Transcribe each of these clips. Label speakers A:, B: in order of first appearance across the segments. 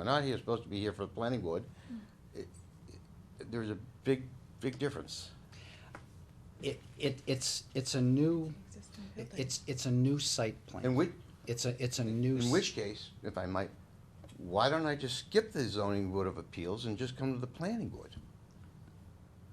A: are not here, supposed to be here for the planning board,
B: Hmm.
A: it- it- there's a big, big difference.
C: It, it, it's, it's a new,
D: Existing
C: it-
D: building.
C: it's, it's a new site plan.
A: In which,
C: It's a, it's a new.
A: in
C: s-
A: which case, if I might, why don't I just skip the zoning board of appeals and just come to the planning board?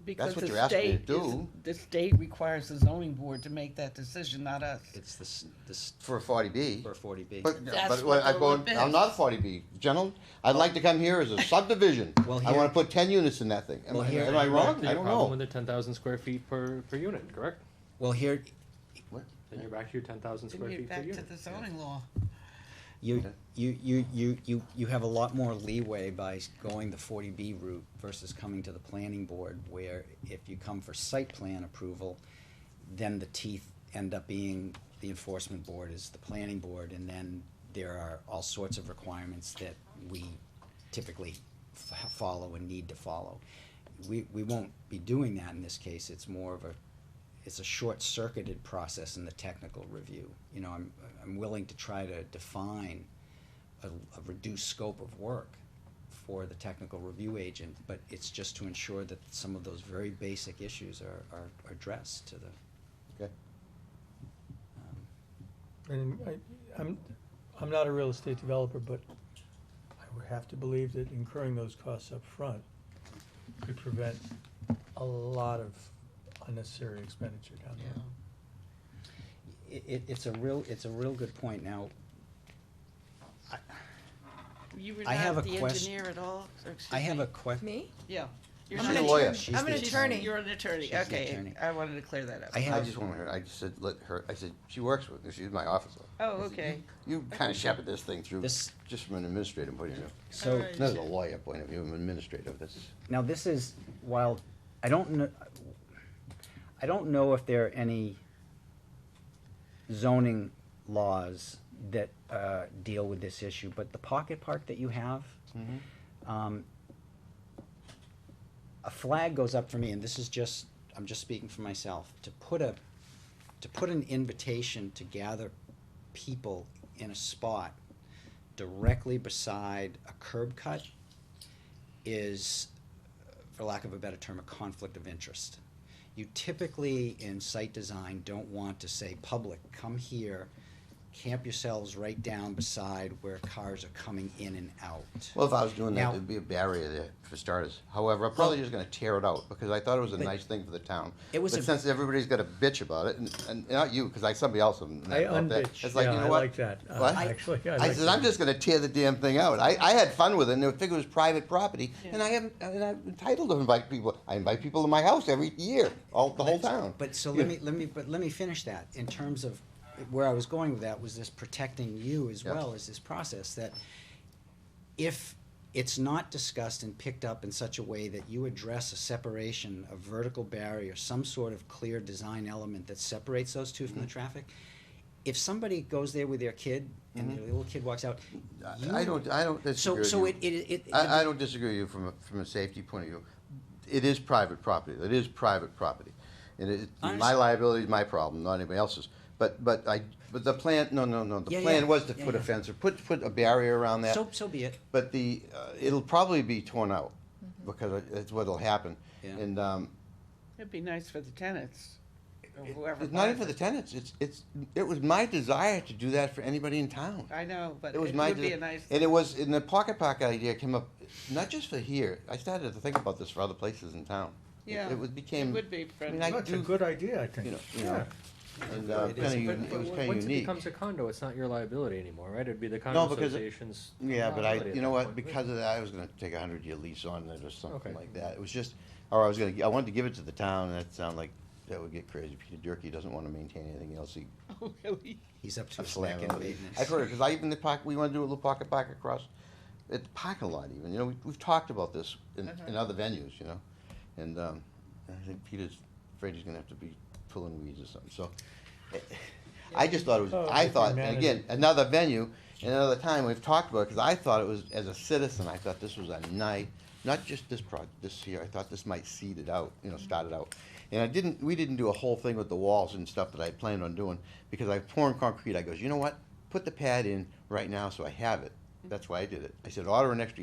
B: Because
A: what
B: the
A: you're asking me to
B: state is-
A: do.
B: The state requires the zoning board to make that decision, not us.
C: It's the, s- the, s-
A: For a forty B.
C: for forty B.
A: But,
B: That's
A: but
B: what
A: I,
B: the
A: am
B: lump is.
A: not forty B, gentlemen, I'd like to come here as a subdivision,
C: Well,
A: I wanna
C: here-
A: put ten units in that thing, am
C: Well,
A: I,
C: here-
A: am I wrong?
E: You're
A: I don't
E: problem
A: know.
E: With the ten thousand square feet per, per unit, correct?
C: Well, here,
A: What?
E: Then you're back to your ten thousand
B: Then
E: square
B: you're
E: feet per
B: back to
E: unit.
B: the zoning law.
C: you,
A: Yeah.
C: you, you, you, you, you have a lot more leeway by s- going the forty B route versus coming to the planning board where if you come for site plan approval, then the teeth end up being, the enforcement board is the planning board and then there are all sorts of requirements that we typically f- follow and need to follow. We, we won't be doing that in this case, it's more of a it's a short-circuited process in the technical review. You know, I'm, I'm willing to try to define a, a reduced scope of work for the technical review agent, but it's just to ensure that some of those very basic issues are, are are addressed to the.
A: Okay.
C: um,
F: And I, I'm, I'm not a real estate developer, but I would have to believe that incurring those costs up front could prevent a lot of unnecessary expenditure down the road.
C: It, it, it's a real, it's a real good point. Now,
B: You were
C: I have a
B: not the
C: quest-
B: engineer at all? or excuse
C: I have
B: me?
C: a que-
D: Me?
B: Yeah. You're
A: I'm
B: not
A: an
B: a-
A: lawyer.
C: She's
D: I'm an
C: the
D: attorney.
B: You're an attorney,
C: She's the
B: okay.
C: attorney.
B: I wanted to clear that up.
C: I
A: I
C: have,
A: just wanted her, I just said, let her, I said, she works with, me. she's my officer.
B: Oh,
A: I said,
B: okay.
A: You you kinda shepherd this thing through,
C: This-
A: just from an administrative point of view.
C: so.
B: Alright.
A: Not as a lawyer point of view, an administrative, that's,
C: Now, this is, while I don't know, I don't know if there are any zoning laws that, uh, deal with this issue, but the pocket park that you have,
F: Mm-hmm.
C: um, a flag goes up for me, and this is just, I'm just speaking for myself, to put a, to put an invitation to gather people in a spot directly beside a curb cut is, for lack of a better term, a conflict of interest. You typically, in site design, don't want to say, public, come here, camp yourselves right down beside where cars are coming in and out.
A: well, if I was doing that,
C: Now-
A: there'd be a barrier there for starters. However, I'm probably just gonna tear it out, because I thought it was a
C: But-
A: nice thing for the town.
C: It was
A: But
C: a-
A: since everybody's got a bitch about it, and, and not you, cause I, somebody else. am mad
F: I
A: about that.
F: unbitch,
A: It's like,
F: yeah,
A: you know
F: I
A: what?
F: like that, uh,
A: What?
F: actually, I
A: I
F: like
A: said, I'm
F: that.
A: just gonna tear the damn thing out. I, I had fun with it, and I figured it was private property, and I am, and I'm entitled to invite people. I invite people to my house every year, all, the whole town.
C: But so let me, let me, but let me finish that, in terms of, where I was going with that was this protecting you as
A: Yeah.
C: well as this process, that if it's not discussed and picked up in such a way that you address a separation, a vertical barrier, some sort of clear design element that separates those two from
A: Mm-hmm.
C: the traffic, if somebody goes there with their kid and their little kid walks out,
A: Mm-hmm. I- I
C: you,
A: don't, I don't disagree
C: so,
A: with
C: so
A: you.
C: it, it, it.
A: I, I don't disagree with you from a, from a safety point of view. It is private property. It is private property. And it,
C: I
A: my
C: understand.
A: liability is my problem, not anybody else's. But, but I, but the plan, no, no, no,
C: Yeah,
A: the plan
C: yeah.
A: was to
C: Yeah,
A: put a
C: yeah.
A: fence or put, put a barrier around that.
C: So, so be it.
A: But the, uh, it'll probably be torn out because that's what'll happen.
C: Mm-hmm. Yeah.
A: And, um,
B: It'd be nice for the tenants, or
A: it-
B: whoever.
A: it's not even
B: buys
A: for the
B: it.
A: tenants. It's, it's, it was my desire to do that for anybody in town.
B: I know, but
A: It was
B: it
A: my,
B: would
A: de-
B: be a nice.
A: and it was, and the pocket park idea came up, not just for here, I started to think about this for other places in town. It-
B: Yeah,
A: It was,
B: It
A: became,
B: would be
A: I mean,
B: friendly.
A: I
F: That's a
A: do,
F: good idea, I
A: you know,
F: think,
A: you
F: yeah.
A: know, and, uh,
C: It
A: kinda,
C: is.
A: uni-
E: But-
A: it was
E: but
A: kinda
E: Once it
A: unique.
E: becomes a condo, it's not your liability anymore, right? It'd be the
A: No,
E: condo
A: because it-
E: association's.
A: Yeah, but I,
E: liability at
A: you know
E: that
A: what,
E: point, right?
A: because of that, I was gonna take a hundred year lease on it or something
E: Okay.
A: like that, it was just, or I was gonna, I wanted to give it to the town, and that sounded like, that would get crazy, Peter Durkee doesn't wanna maintain anything else, he
B: Oh, really?
C: He's up to
A: I'm
C: his neck
A: slamming
C: in
A: on it.
C: maintenance.
A: I've heard it, because I even the pocket, we want to do a little pocket park across, at the parking lot even, you know, we, we've talked about this in, in other venues, you know? And, um, I think Peter's afraid he's gonna have to be pulling weeds or something, so. eh, I just thought it was,
F: Oh,
A: I
F: if
A: thought,
F: you
A: and
F: manage
A: again, another venue, and another time, we've talked about it, because I thought it was, as a citizen, I thought this was a night, not just this project, this year, I thought this might seed it out, you know, start it out. And I didn't, we didn't do a whole thing with the walls and stuff that I planned on doing, because I poured concrete, I goes, you know what? Put the pad in right now so I have it, that's why I did it. I said, order an extra